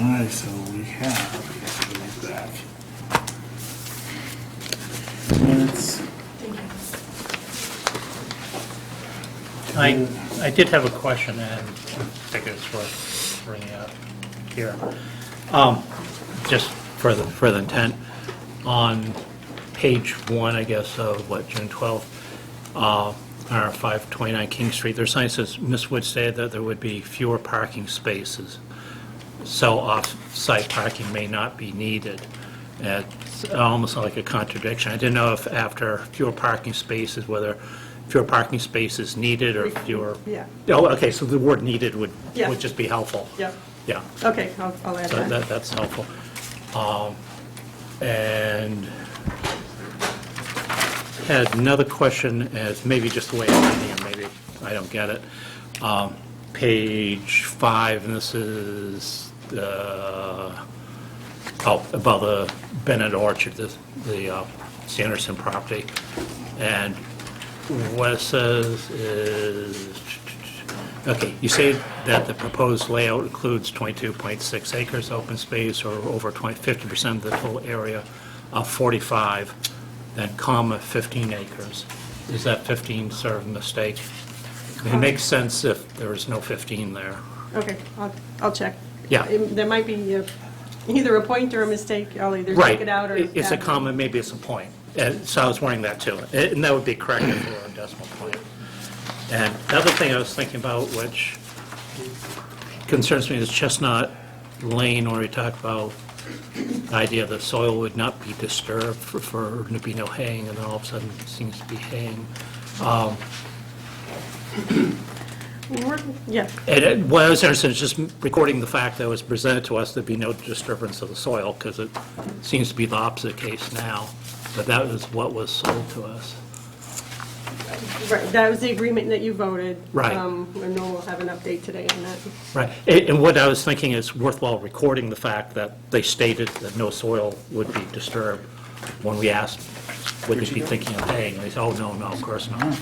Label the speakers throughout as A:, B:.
A: All right, so we have, yes, it goes back. Minutes.
B: I, I did have a question, and I think it's worth bringing up here. Um, Just for the, for the intent, on page one, I guess, of what, June 12th, uh, our 529 King Street, their sign says, Ms. Wood said that there would be fewer parking spaces, so off-site parking may not be needed. It's almost like a contradiction. I didn't know if after fewer parking spaces, whether fewer parking spaces needed or fewer...
C: Yeah.
B: Oh, okay, so the word needed would,
C: Yeah.
B: would just be helpful.
C: Yep,
B: Yeah.
C: okay, I'll, I'll add
B: So
C: that.
B: that, that's helpful. Um, And had another question, as maybe just the way I'm reading it, maybe I don't get it. Um, Page five, and this is, uh, oh, about the Bennett Orchard, the, the uh, Sanderson property. And what it says is, okay, you say that the proposed layout includes 22.6 acres open space or over 20 50% of the total area of 45, then comma 15 acres. Is that 15 sort of a mistake? It makes sense if there is no 15 there.
C: Okay, I'll, I'll check.
B: Yeah.
C: It- There might be uh, either a point or a mistake, I'll either
B: Right.
C: take it out or.
B: It- It's a
C: add it.
B: comma, maybe it's a point. And so I was worrying that too. And that would be correct if it were a decimal point. And the other thing I was thinking about, which concerns me, is Chestnut Lane, where we talk about the idea that soil would not be disturbed for, for, to be no haying, and then all of a sudden it seems to be haying.
C: We're- Yeah,
B: And it- what I was interested in is just recording the fact that it was presented to us, there'd be no disturbance of the soil, because it seems to be the opposite case now, but that was what was sold to us.
C: right, that was the agreement that you voted.
B: Right.
C: Um, And we'll have an update today on that.
B: Right, and and what I was thinking is worthwhile recording the fact that they stated that no soil would be disturbed when we asked, would they be thinking of haying? They said, oh, no, no, of course not.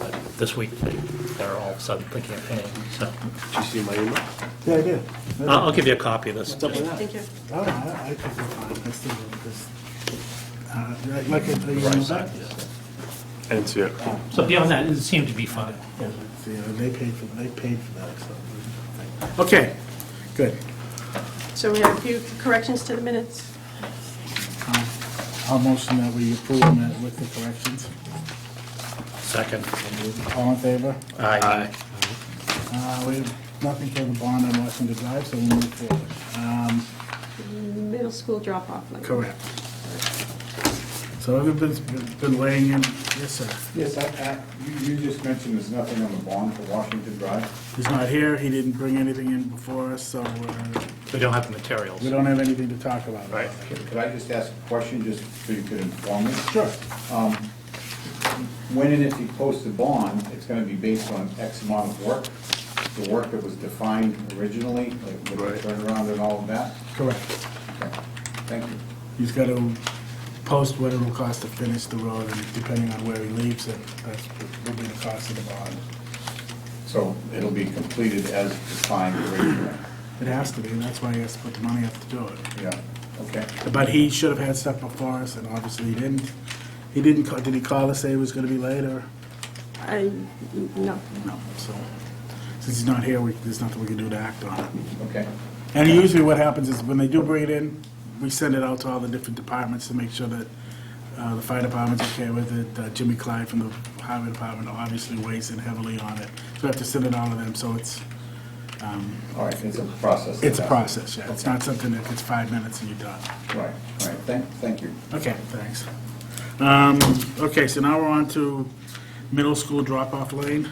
B: But this week, they- they're all of a sudden thinking of haying, so
D: Did you see my email?
A: Yeah, I did.
B: I'll I'll give you a copy of this.
D: What's up with that?
C: Thank you.
A: Oh, I, I could go on, that's the, this, uh, like- like, I- you know, that,
D: I didn't see it.
B: So beyond that, it seemed to be fine.
A: see, uh, they paid for, they paid for that, so. Okay, good.
C: So we have a few corrections to the minutes.
A: Um, I'll motion that we approve them with the corrections.
B: Second.
A: All in favor?
B: Aye.
A: Uh, we have nothing for the bond on Washington Drive, so we'll move forward. Um,
C: Middle school drop-off line.
A: Correct. So everybody's been been laying in, yes, sir.
E: Yes, I- I- you you just mentioned there's nothing on the bond for Washington Drive.
A: He's not here, he didn't bring anything in before us, so uh,
B: We don't have the materials.
A: we don't have anything to talk about.
B: Right.
E: Could I just ask a question, just so you could inform me?
A: Sure.
E: When and if you post the bond, it's gonna be based on X amount of work, the work that was defined originally, like with
D: Right.
E: the turnaround and all of that?
A: Correct.
E: Okay, Thank you.
A: He's got to post what it will cost to finish the road, and depending on where he leaves it, that's what will be the cost of the bond.
E: So it'll be completed as defined originally?
A: It has to be, and that's why he has to put the money up to do it.
E: Yeah, okay.
A: But he should have had stuff before us, and obviously he didn't. He didn't, ca- did he call to say it was gonna be later?
C: I, no,
A: No, so, since he's not here, we, there's nothing we can do to act on it.
E: Okay,
A: And usually what happens is when they do bring it in, we send it out to all the different departments to make sure that uh, the fire department's okay with it. Uh, Jimmy Clyde from the highway department obviously weighs in heavily on it. So we have to send it out to them, so it's, um,
E: all right, it's a process.
A: it's a process, yeah. It's not something that it's five minutes and you're done.
E: Right, all right, thank, thank you.
A: Okay, thanks. Um, Okay, so now we're on to middle school drop-off lane.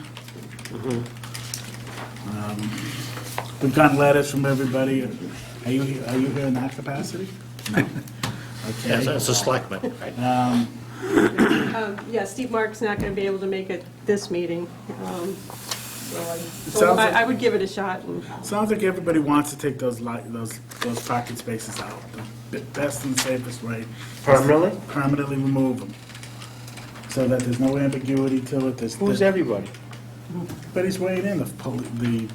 A: Um, We've gotten letters from everybody. Are you, are you here in that capacity?
B: As
A: Okay.
B: as a selectman.
C: Um, yeah, Steve Mark's not going to be able to make it this meeting. um, so I-
A: sounds like-
C: I I would give it a shot and
A: Sounds like everybody wants to take those li, those, those parking spaces out. The best and safest way.
D: Permanently?
A: Permanently remove them. So that there's no ambiguity to it. There's-
D: Who's everybody?
A: But he's weighing in, the, poli- the